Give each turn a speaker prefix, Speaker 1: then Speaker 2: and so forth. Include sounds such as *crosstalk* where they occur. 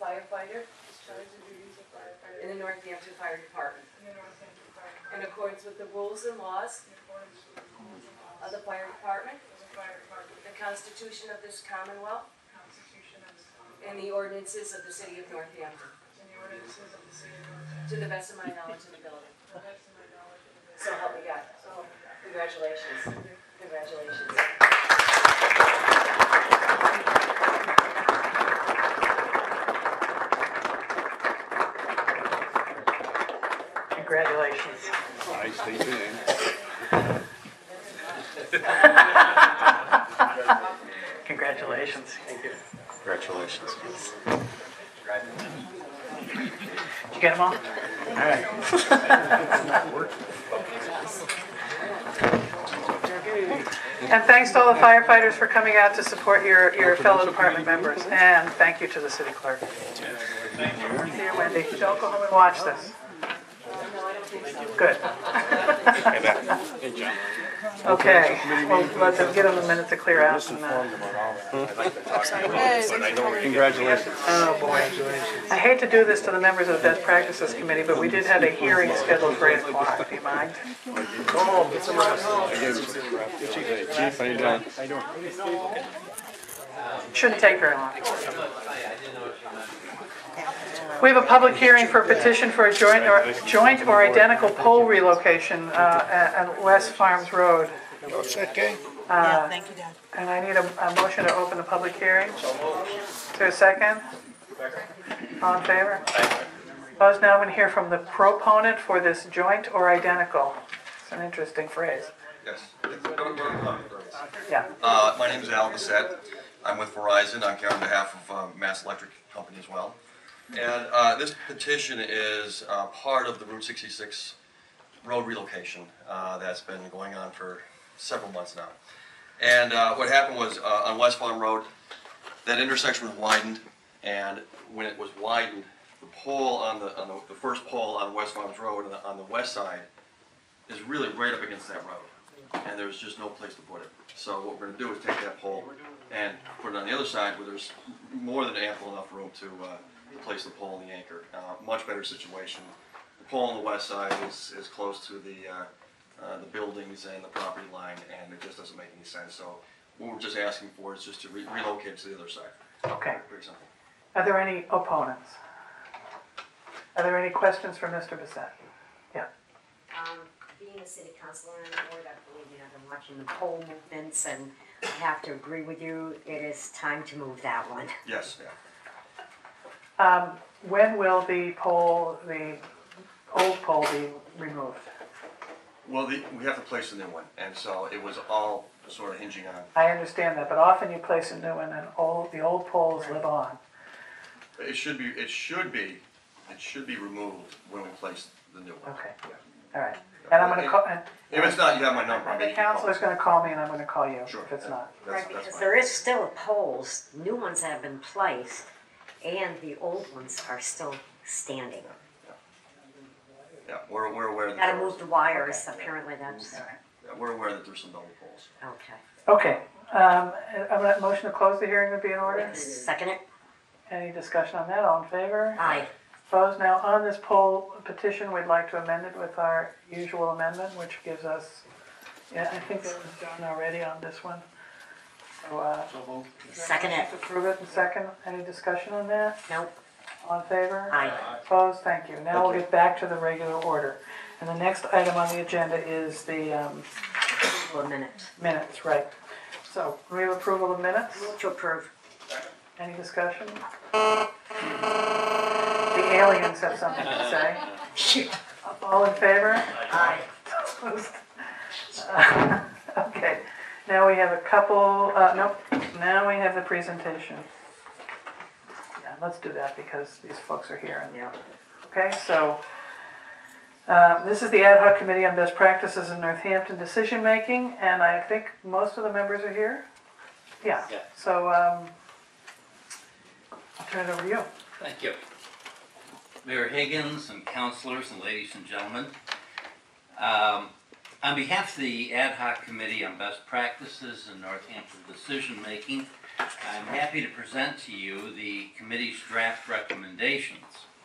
Speaker 1: firefighter
Speaker 2: discharge the duties of
Speaker 1: in
Speaker 2: firefighter
Speaker 1: the Northampton Fire Department
Speaker 2: in the Northampton Fire Department
Speaker 1: in accordance with the rules and laws
Speaker 2: in accordance with the rules and
Speaker 1: of
Speaker 2: laws
Speaker 1: the Fire Department,
Speaker 2: of the Fire Department,
Speaker 1: the Constitution of this Commonwealth,
Speaker 2: the Constitution of this
Speaker 1: and
Speaker 2: Commonwealth,
Speaker 1: the ordinances of the City of Northampton,
Speaker 2: and the ordinances of the City of Northampton,
Speaker 1: to the best of my knowledge and ability.
Speaker 2: to the best of my knowledge and ability.
Speaker 1: So help me God.
Speaker 2: So help me God.
Speaker 1: Congratulations.
Speaker 2: Thank you.
Speaker 1: Congratulations.
Speaker 3: Congratulations.
Speaker 4: I state your name.
Speaker 3: Congratulations.
Speaker 4: Congratulations.
Speaker 3: Did you get them all? All right. And thanks to all the firefighters for coming out to support your, your fellow department members. And thank you to the city clerk. Dear Wendy, don't go home and watch this. Good. Okay, well, let them get them a minute to clear out and, uh,
Speaker 4: Congratulations.
Speaker 3: Oh, boy. I hate to do this to the members of the Best Practices Committee, but we did have a hearing scheduled for eight o'clock, do you mind?
Speaker 4: Hey, Chief, how you doing?
Speaker 3: Shouldn't take very long. We have a public hearing for a petition for a joint or, joint or identical pole relocation, uh, at, at West Farms Road.
Speaker 5: Yeah, thank you, Dad.
Speaker 3: And I need a, a motion to open the public hearing. Is there a second? All in favor? Opposed, now I'm gonna hear from the proponent for this joint or identical. It's an interesting phrase.
Speaker 6: Yes. Don't- don't love me for this.
Speaker 3: Yeah,
Speaker 6: Uh, my name is Al Bissett. I'm with Verizon. I'm here on behalf of um, Mass Electric Company as well. And uh, this petition is uh, part of the Route 66 road relocation uh, that's been going on for several months now. And uh, what happened was uh, on West Farm Road, that intersection was widened, and when it was widened, the pole on the on the, the first pole on West Farms Road on the, on the west side is really right up against that road, and there's just no place to put it. So what we're gonna do is take that pole and put it on the other side where there's more than ample enough room to, uh, place the pole and the anchor. Uh, much better situation. The pole on the west side is, is close to the, uh, uh, the buildings and the property line, and it just doesn't make any sense. So what we're just asking for is just to re- relocate to the other side,
Speaker 3: okay.
Speaker 6: pretty simple.
Speaker 3: Are there any opponents? Are there any questions for Mr. Bissett? Yeah,
Speaker 7: um, being a city councilor on the board, I believe, you know, I've been watching the poll movements, and I have to agree with you, it is time to move that one.
Speaker 6: Yes, yeah.
Speaker 3: when will the poll, the old poll be removed?
Speaker 6: Well, the, we have to place a new one, and so it was all sort of hinging on
Speaker 3: I understand that, but often you place a new one and old, the old polls live on.
Speaker 6: It should be, it should be, it should be removed when we place the new one.
Speaker 3: Okay.
Speaker 6: Yeah.
Speaker 3: All right, and I'm gonna call, and
Speaker 6: If it's not, you have my number. I mean,
Speaker 3: the
Speaker 6: you can call.
Speaker 3: counselor's gonna call me and I'm gonna call you
Speaker 6: Sure.
Speaker 3: if it's
Speaker 6: that-
Speaker 3: not.
Speaker 6: that's-
Speaker 7: Right,
Speaker 6: that's
Speaker 7: because
Speaker 6: fine.
Speaker 7: there is still poles, new ones that have been placed, and the old ones are still standing.
Speaker 6: Yeah, we're, we're aware that
Speaker 7: Gotta
Speaker 6: there
Speaker 7: move
Speaker 6: was,
Speaker 7: the wires, apparently that's,
Speaker 6: yeah, we're aware that there's some double poles.
Speaker 7: okay.
Speaker 3: Okay, um, I'm gonna, motion to close the hearing would be in order?
Speaker 7: Second it?
Speaker 3: Any discussion on that, all in favor?
Speaker 7: Aye.
Speaker 3: Opposed? Now, on this poll petition, we'd like to amend it with our usual amendment, which gives us, yeah, I think that was done already on this one. So, uh,
Speaker 7: Second it?
Speaker 3: approve it in second. Any discussion on that?
Speaker 7: Nope.
Speaker 3: All in favor?
Speaker 7: Aye.
Speaker 3: Opposed? Thank you. Now we'll get back to the regular order. And the next item on the agenda is the um,
Speaker 7: Hold a minute.
Speaker 3: minutes, right? So, we have approval of minutes?
Speaker 7: Move to approve.
Speaker 3: Any discussion? The aliens have something to say. All in favor?
Speaker 7: Aye.
Speaker 3: *laughs* Okay, now we have a couple, uh, nope, now we have the presentation. Yeah, let's do that because these folks are here and,
Speaker 7: Yeah.
Speaker 3: okay, so. Uh, this is the ad hoc committee on best practices in Northampton decision making, and I think most of the members are here. Yeah,
Speaker 8: Yeah.
Speaker 3: so, um, I'll turn it over to you.
Speaker 8: Thank you. Mayor Higgins and councilors and ladies and gentlemen. Um, On behalf of the Ad hoc Committee on Best Practices in Northampton Decision Making, I'm happy to present to you the committee's draft recommendation.